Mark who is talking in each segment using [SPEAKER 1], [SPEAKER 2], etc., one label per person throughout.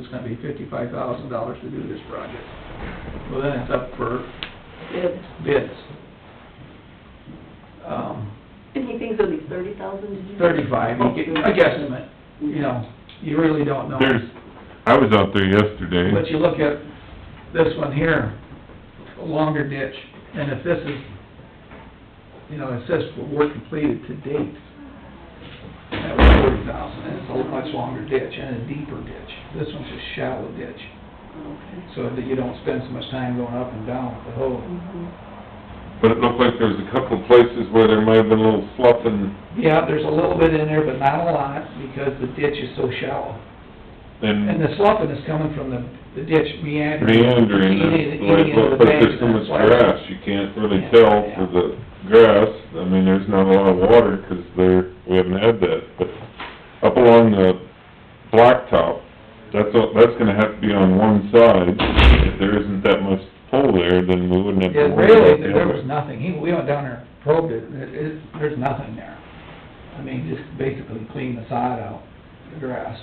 [SPEAKER 1] it's gonna be fifty-five thousand dollars to do this project. Well, then it's up for
[SPEAKER 2] Good.
[SPEAKER 1] bids. Um,
[SPEAKER 2] And he thinks it'll be thirty thousand, did you? say?
[SPEAKER 1] thirty-five, you get, a guesstimate, you know, you really don't know.
[SPEAKER 3] There's, I was out there yesterday.
[SPEAKER 1] But you look at this one here, a longer ditch, and if this is, you know, it says for work completed to date, that was forty thousand, and it's a much longer ditch and a deeper ditch. This one's a shallow ditch,
[SPEAKER 2] Okay.
[SPEAKER 1] so that you don't spend so much time going up and down with the hole.
[SPEAKER 2] Mhm.
[SPEAKER 3] But it looked like there was a couple of places where there might have been a little sloughing,
[SPEAKER 1] Yeah, there's a little bit in there, but not a lot, because the ditch is so shallow. And
[SPEAKER 3] and
[SPEAKER 1] the sloughing is coming from the, the ditch meandering.
[SPEAKER 3] meandering,
[SPEAKER 1] Eating-
[SPEAKER 3] and
[SPEAKER 1] eating
[SPEAKER 3] like,
[SPEAKER 1] into the
[SPEAKER 3] looks like
[SPEAKER 1] bank,
[SPEAKER 3] there's so
[SPEAKER 1] and that's
[SPEAKER 3] much
[SPEAKER 1] why-
[SPEAKER 3] grass, you can't really
[SPEAKER 1] Yeah,
[SPEAKER 3] tell
[SPEAKER 1] yeah.
[SPEAKER 3] for the grass. I mean, there's not a lot of water, 'cause there, we haven't had that, but up along the blacktop, that's, all- that's gonna have to be on one side. If there isn't that much pull there, then we wouldn't have to
[SPEAKER 1] Yeah,
[SPEAKER 3] worry about the
[SPEAKER 1] really, there
[SPEAKER 3] other.
[SPEAKER 1] was nothing, he, we went down there, and probed it, it, it, there's nothing there. I mean, just basically cleaned the sod out, the grass.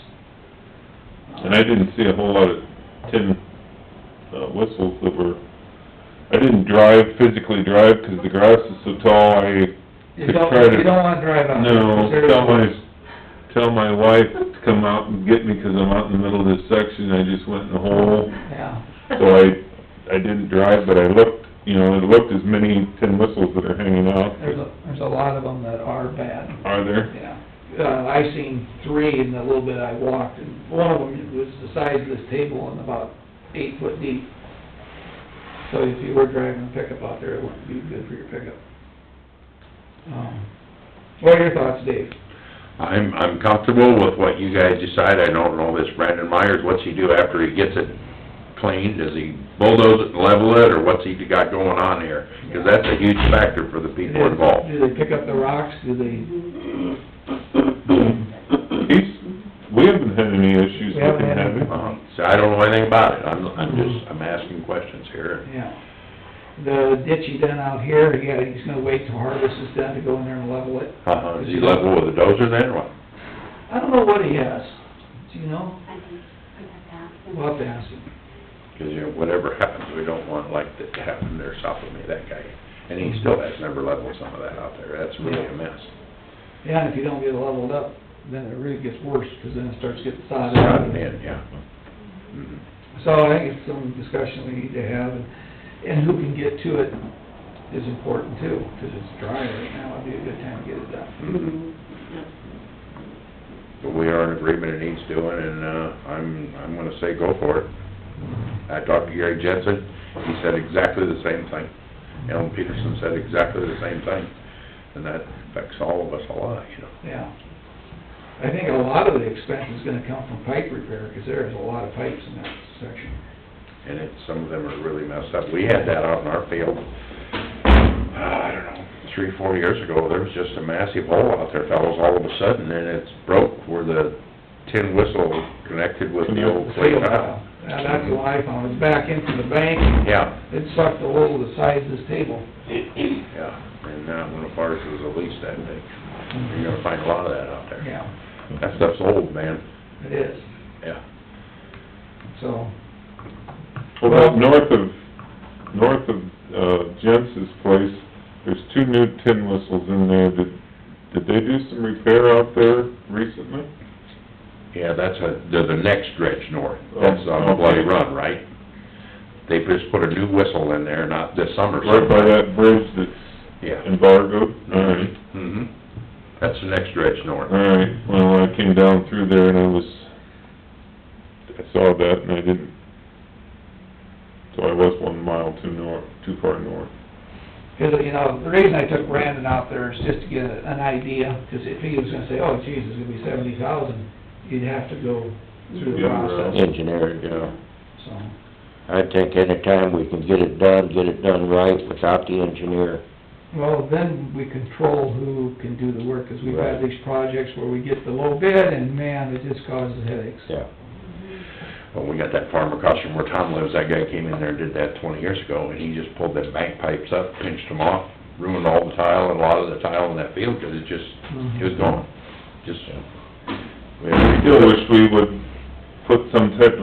[SPEAKER 3] And I didn't see a whole lot of tin uh, whistles that were, I didn't drive, physically drive, 'cause the grass is so tall, I,
[SPEAKER 1] You
[SPEAKER 3] could
[SPEAKER 1] don't,
[SPEAKER 3] try to-
[SPEAKER 1] you don't wanna drive on it. 'cause
[SPEAKER 3] no,
[SPEAKER 1] there's-
[SPEAKER 3] tell my, tell my wife to come out and get me, 'cause I'm out in the middle of this section, I just went in the hole.
[SPEAKER 1] Yeah,
[SPEAKER 3] So I, I didn't drive, but I looked, you know, I looked as many tin whistles that are hanging out,
[SPEAKER 1] there's a, there's a lot of them that are bad,
[SPEAKER 3] are there?
[SPEAKER 1] yeah. Uh, I seen three in the little bit I walked, and one of them was the size of this table and about eight foot deep. So if you were driving a pickup out there, it wouldn't be good for your pickup. Um, What are your thoughts, Dave?
[SPEAKER 4] I'm, I'm comfortable with what you guys decide, I don't know this Brandon Myers, what's he do after he gets it cleaned? Does he bulldoze it and level it, or what's he got going on here? Because that's a huge factor for the people involved.
[SPEAKER 1] Do they pick up the rocks, do they?
[SPEAKER 3] He's, we haven't had any issues
[SPEAKER 1] We
[SPEAKER 3] with
[SPEAKER 1] haven't had
[SPEAKER 3] him, have we?
[SPEAKER 1] any.
[SPEAKER 4] Uh, So I don't know anything about it, I'm, I'm just, I'm asking questions here.
[SPEAKER 1] Yeah. The ditch he done out here, he got, he's gonna wait till harvest is done to go in there and level it.
[SPEAKER 4] Uh, is he level with a dozer then, or what?
[SPEAKER 1] I don't know what he has, do you know?
[SPEAKER 5] I think we have to ask them.
[SPEAKER 1] We'll have to ask him.
[SPEAKER 4] Because, you know, whatever happens, we don't want like that to happen there south of me, that guy. And he still has never leveled some of that out there, that's really a mess.
[SPEAKER 1] Yeah, and if you don't get it leveled up, then it really gets worse, 'cause then it starts getting sodded
[SPEAKER 4] Rotten
[SPEAKER 1] out.
[SPEAKER 4] in, yeah. Mhm.
[SPEAKER 1] So I think it's some discussion we need to have, and, and who can get to it is important too, 'cause it's dry right now, it'd be a good time to get it done.
[SPEAKER 2] Mhm. Yep.
[SPEAKER 4] But we are in agreement it needs doing, and, uh, I'm, I'm gonna say go for it. I talked to Gary Jensen, he said exactly the same thing. Alan Peterson said exactly the same thing, and that affects all of us a lot, you know.
[SPEAKER 1] Yeah. I think a lot of the expense is gonna come from pipe repair, 'cause there is a lot of pipes in that section.
[SPEAKER 4] And it, some of them are really messed up. We had that out in our field, uh, I don't know, three, four years ago, there was just a massive hole out there, fellas, all of a sudden, and it's broke where the tin whistle connected with the old clay tile.
[SPEAKER 1] Now, that's the one I found, it's back into the bank,
[SPEAKER 4] Yeah,
[SPEAKER 1] it sucked a hole the size of this table.
[SPEAKER 4] yeah, and uh, that one of ours was at least that big. You're gonna find a lot of that out there.
[SPEAKER 1] Yeah,
[SPEAKER 4] That stuff's old, man.
[SPEAKER 1] it is,
[SPEAKER 4] Yeah.
[SPEAKER 1] so,
[SPEAKER 3] Well, up north of, north of, uh, Jens's place, there's two new tin whistles in there. Did, did they do some repair out there recently?
[SPEAKER 4] Yeah, that's a, they're the next stretch north. That's on
[SPEAKER 3] Oh,
[SPEAKER 4] Bloody
[SPEAKER 3] okay.
[SPEAKER 4] Run, right? They just put a new whistle in there, not this summer.
[SPEAKER 3] Right by that bridge that's
[SPEAKER 4] Yeah.
[SPEAKER 3] embargoed? Alright,
[SPEAKER 4] Mm-hmm. That's the next stretch north.
[SPEAKER 3] alright. Well, I came down through there and I was, I saw that and I didn't, so I was one mile too north, too far north.
[SPEAKER 1] 'cause, you know, the reason I took Brandon out there is just to get an idea, 'cause if he was gonna say, oh, geez, it's gonna be seventy thousand, you'd have to go through the
[SPEAKER 3] Yeah, well.
[SPEAKER 1] process,
[SPEAKER 6] engineer, you know.
[SPEAKER 1] so.
[SPEAKER 6] I think any time we can get it done, get it done right without the engineer.
[SPEAKER 1] Well, then we control who can do the work, 'cause we've had these projects where we get the low bid, and man, it just causes headaches.
[SPEAKER 6] Yeah.
[SPEAKER 4] When we got that farm across from where Tom lives, that guy came in there and did that twenty years ago, and he just pulled them bank pipes up, pinched them off, ruined all the tile and a lot of the tile in that field, 'cause it just, it was gone. Just, we had to
[SPEAKER 3] I
[SPEAKER 4] redo
[SPEAKER 3] still wish
[SPEAKER 4] it.
[SPEAKER 3] we would put some type of